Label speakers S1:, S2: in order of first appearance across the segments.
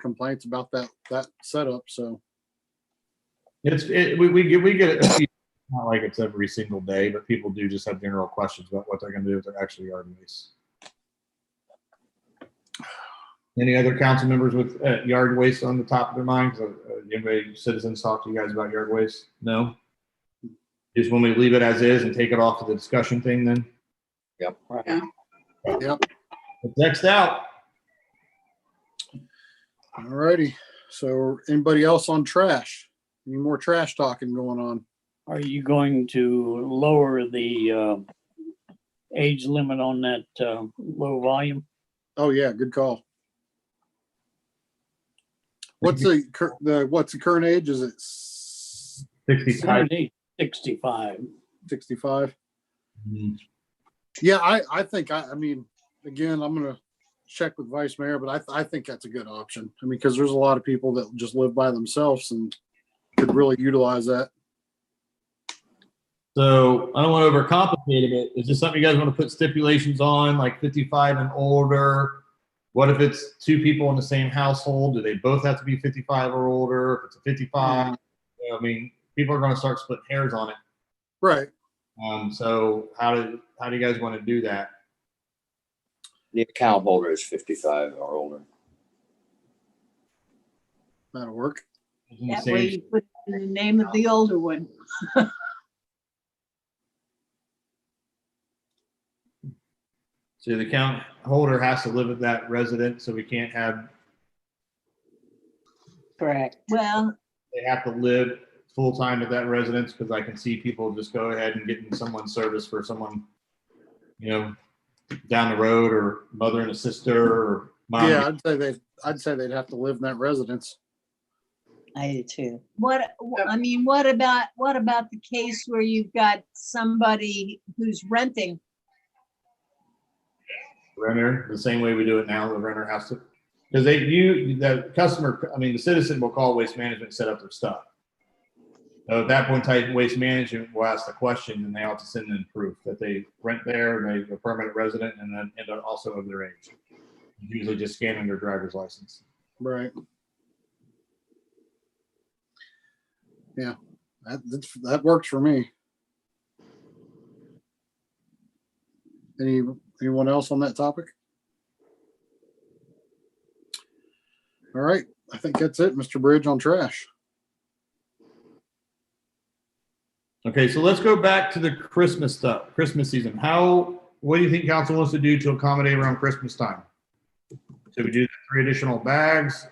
S1: complaints about that, that setup, so.
S2: It's, it, we, we get, we get, it a few- not like it's every single day, but people do just have general questions about what they're gonna do with their actual yard waste. Any other council members with, uh, yard waste on the top of their minds? Uh, uh, Anybody, citizens talk to you guys about yard waste? No? Just when we leave it as is and take it off of the discussion thing then?
S3: Yep.
S4: Yeah.
S1: Yep.
S2: Next out,
S1: Alrighty, so anybody else on trash? Any more trash talking going on?
S5: Are you going to lower the uh, age limit on that uh, low volume?
S1: Oh, yeah, good call. What's the, cur- the, what's the current age? Is it s-
S2: sixty-five.
S5: 65.
S1: 65? Yeah, I, I think, I, I mean, again, I'm gonna check with Vice Mayor, but I, I think that's a good option. I mean, because there's a lot of people that just live by themselves and could really utilize that.
S2: So I don't want to overcomplicate it. Is this something you guys want to put stipulations on, like 55 and older? What if it's two people in the same household? Do they both have to be 55 or older? If it's a
S4: Mm.
S2: 55, you know, I mean, people are going to start splitting hairs on it.
S1: Right,
S2: Um, so how do how do you guys want to do that?
S3: The account holder is fifty-five or older.
S1: that'll work.
S2: Isn't the
S4: That
S2: same-
S4: way you put in the name of the older one.
S2: So the account holder has to live with that resident, so we can't have
S6: Correct.
S4: Well,
S2: they have to live full time at that residence because I can see people just go ahead and getting someone's service for someone, you know, down the road or mother and a sister or mom.
S1: Yeah, I'd say they, I'd say they'd have to live in that residence.
S6: I do too.
S4: what, I mean, what about, what about the case where you've got somebody who's renting?
S2: Renter, the same way we do it now, the renter has to, because they, you, the customer, I mean, the citizen will call waste management, set up their stuff. So at that point, type waste management will ask the question and they have to send in proof that they rent there, and they're a permanent resident and then, and they're also of their age. Usually just scanning their driver's license.
S1: Right. Yeah, that, that's, that works for me. Any, anyone else on that topic? All right, I think that's it, Mr. Bridge on trash.
S2: Okay, so let's go back to the Christmas stuff, Christmas season. How, what do you think council wants to do to accommodate around Christmas time? So we do the three additional bags.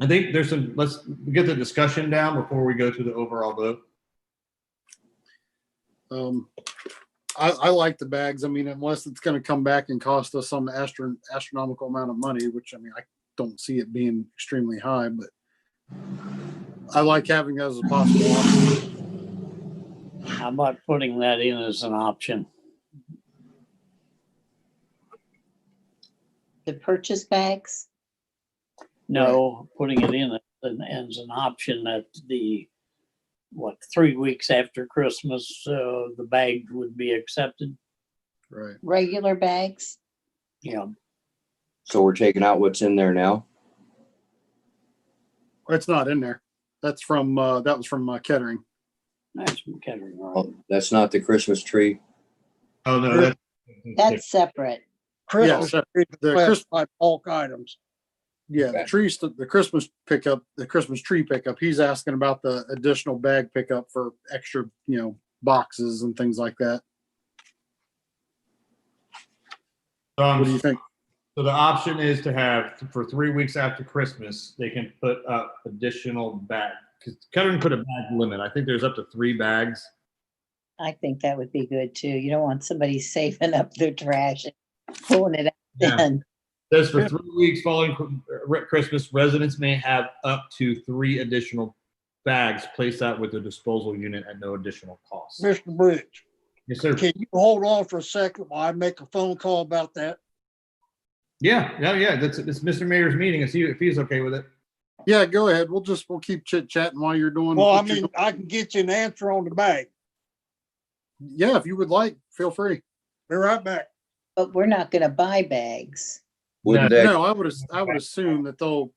S2: I think there's some, let's get the discussion down before we go to the overall vote.
S1: Um, I, I like the bags. I mean, unless it's gonna come back and cost us some astron- astronomical amount of money, which I mean, I don't see it being extremely high, but I like having those as a possible option.
S5: How about putting that in as an option?
S6: The purchase bags,
S5: No, putting it in as an- as an option that the, what, three weeks after Christmas, uh, the bag would be accepted?
S1: Right.
S6: regular bags,
S5: You know,
S3: So we're taking out what's in there now?
S1: It's not in there. That's from, uh, that was from uh, Kettering.
S5: that's kind of right.
S3: Oh, That's not the Christmas tree?
S2: Oh, no, that's.
S6: that's separate.
S1: Yeah,
S7: Christmas,
S1: so
S7: tree
S1: the
S7: request
S1: Christ-
S7: by bulk items.
S1: Yeah, the
S3: Okay.
S1: trees, the the Christmas pickup, the Christmas tree pickup, he's asking about the additional bag pickup for extra, you know, boxes and things like that. What do you
S2: Um,
S1: think?
S2: So the option is to have, for three weeks after Christmas, they can put up additional bag. Cause Kettering put a bag limit. I think there's up to three bags.
S6: I think that would be good too. You don't want somebody saving up their trash and pulling it out then.
S2: Says for three weeks following Chr- uh, Christmas, residents may have up to three additional bags placed out with the disposal unit at no additional cost.
S7: Mr. Bridge,
S2: Yes, sir.
S7: can you hold on for a second while I make a phone call about that?
S2: Yeah, yeah, yeah. That's, it's Mr. Mayor's meeting. If he, if he's okay with it.
S1: Yeah, go ahead. We'll just, we'll keep chit chatting while you're doing.
S7: Well, I
S1: what you're
S7: mean, I can get you an answer on the bag.
S1: doing. Yeah, if you would like, feel free.
S7: Be right back.
S6: But we're not gonna buy bags.
S3: Wouldn't that
S1: No, I would, as- I would assume that they'll